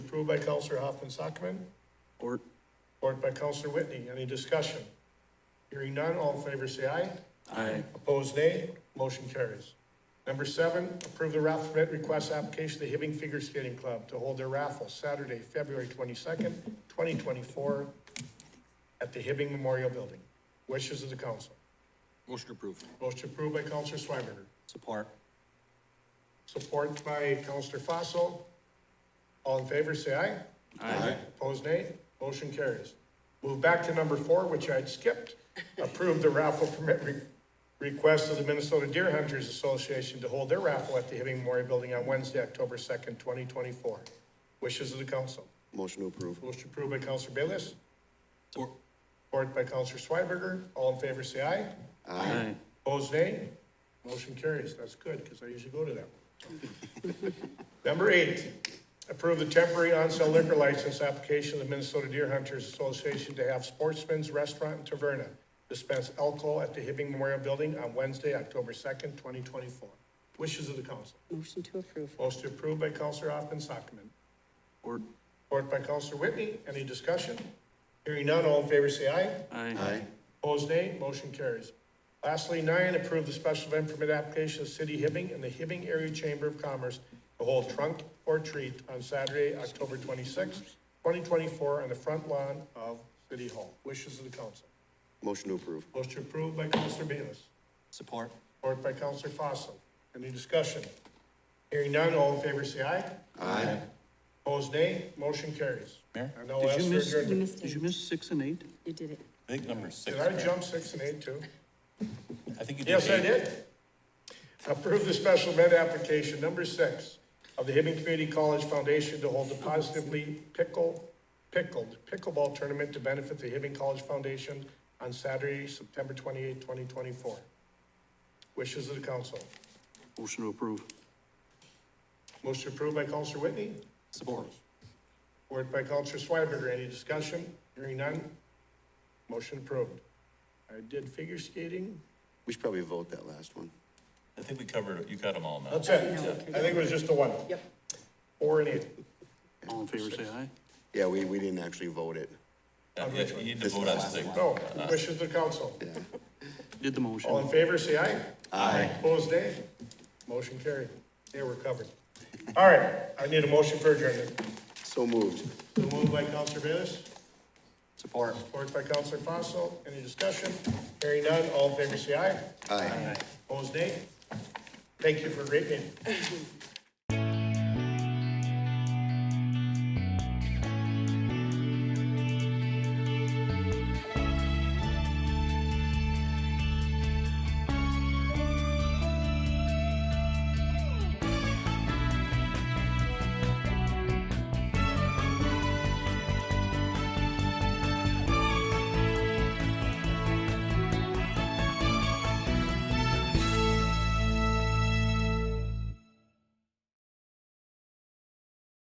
approved by Counselor Hoffman Sockman, Or support by Counselor Whitney. Any discussion? Hearing none, all in favor say aye. Aye. Opposed, nay. Motion carries. Number seven, approve the raffle permit request application to the Hibbing Figure Skating Club to hold their raffle Saturday, February twenty-second, twenty twenty-four at the Hibbing Memorial Building. Wishes of the council. Motion approved. Motion approved by Counselor Schweberger. Support. Support by Counselor Fossil. All in favor, say aye. Aye. Opposed, nay. Motion carries. Move back to number four, which I'd skipped. Approve the raffle permit re- request of the Minnesota Deer Hunters Association to hold their raffle at the Hibbing Memorial Building on Wednesday, October second, twenty twenty-four. Wishes of the council. Motion to approve. Motion approved by Counselor Bayless, Support. support by Counselor Schweberger. All in favor, say aye. Aye. Opposed, nay? Motion carries. That's good, because I usually go to that. Number eight, approve the temporary on-sale liquor license application of the Minnesota Deer Hunters Association to have Sportsman's Restaurant and Taverna dispense alcohol at the Hibbing Memorial Building on Wednesday, October second, twenty twenty-four. Wishes of the council. Motion to approve. Motion approved by Counselor Hoffman Sockman. Or Support by Counselor Whitney. Any discussion? Hearing none, all in favor say aye. Aye. Aye. Opposed, nay. Motion carries. Lastly, nine, approve the special event permit application of City Hibbing and the Hibbing Area Chamber of Commerce to hold trunk or treat on Saturday, October twenty-sixth, twenty twenty-four, on the front lawn of City Hall. Wishes of the council. Motion to approve. Motion approved by Counselor Bayless, Support. support by Counselor Fossil. Any discussion? Hearing none, all in favor say aye. Aye. Opposed, nay. Motion carries. Mayor, And I'll did you ask for miss- You adjournment. missed Did you it. miss six and eight? You did it. I think number six. Did I Mayor. jump six and eight too? I think you did. Yes, I eight. did. Approve the special event application number six of the Hibbing Community College Foundation to hold the positively pickle, pickled pickleball tournament to benefit the Hibbing College Foundation on Saturday, September twenty-eighth, twenty twenty-four. Wishes of the council. Motion to approve. Motion approved by Counselor Whitney, Support. Word by Counselor Schweberger, any discussion? Hearing none, motion approved. I did figure skating, We should probably vote that last one. I think we covered, it. you got them all now. that's it, I think it was just the one. Yep. Four and eight. All in favor, say aye. Yeah, we, we didn't actually vote it. Yeah, You you need to vote This is on the last six. No, wishes of the council. Did the motion. All in favor, say aye. Aye. Opposed, nay. Motion carried. Yeah, we're covered. All right, I need a motion for adjournment. So moved. So Moved by Counselor Bayless, Support. supported by Counselor Fossil. Any discussion? Hearing none, all in favor, say aye. Aye. Opposed, nay. Thank you for a great meeting.